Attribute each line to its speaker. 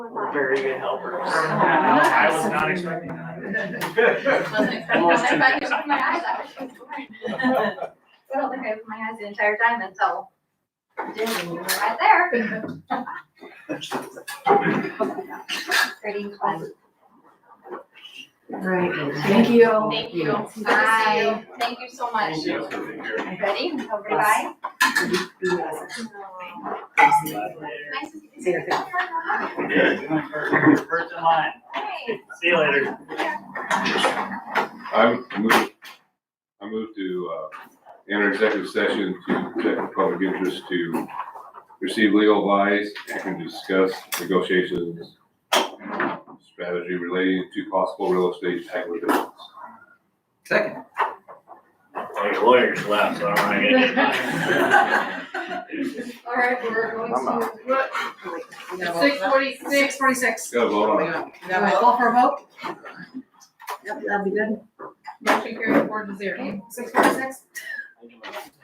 Speaker 1: very good helpers.
Speaker 2: I
Speaker 1: was not expecting that.
Speaker 3: Wasn't expecting that. If I could open my eyes, I would have sworn. I don't think I opened my eyes the entire time until Jim, you were right there. Pretty fun.
Speaker 2: Right, thank you.
Speaker 3: Thank you. Bye. Thank you so much.
Speaker 1: Thank you.
Speaker 3: Ready? Over to bye. Nice to see you.
Speaker 2: See you.
Speaker 1: First in line.
Speaker 3: Hey.
Speaker 1: See you later.
Speaker 4: I'm move, I move to, uh, enter executive session to protect the public interest to receive legal advice and to discuss negotiations, strategy relating to possible real estate acquisitions.
Speaker 5: Second.
Speaker 1: Well, your lawyers left, so I'm not gonna get mine.
Speaker 3: All right, we're going to
Speaker 2: Six forty-six.
Speaker 6: Six forty-six.
Speaker 4: Got a vote on it.
Speaker 2: All right, call for a vote? Yep, that'd be good.
Speaker 6: Motion carried four to zero. Six forty-six?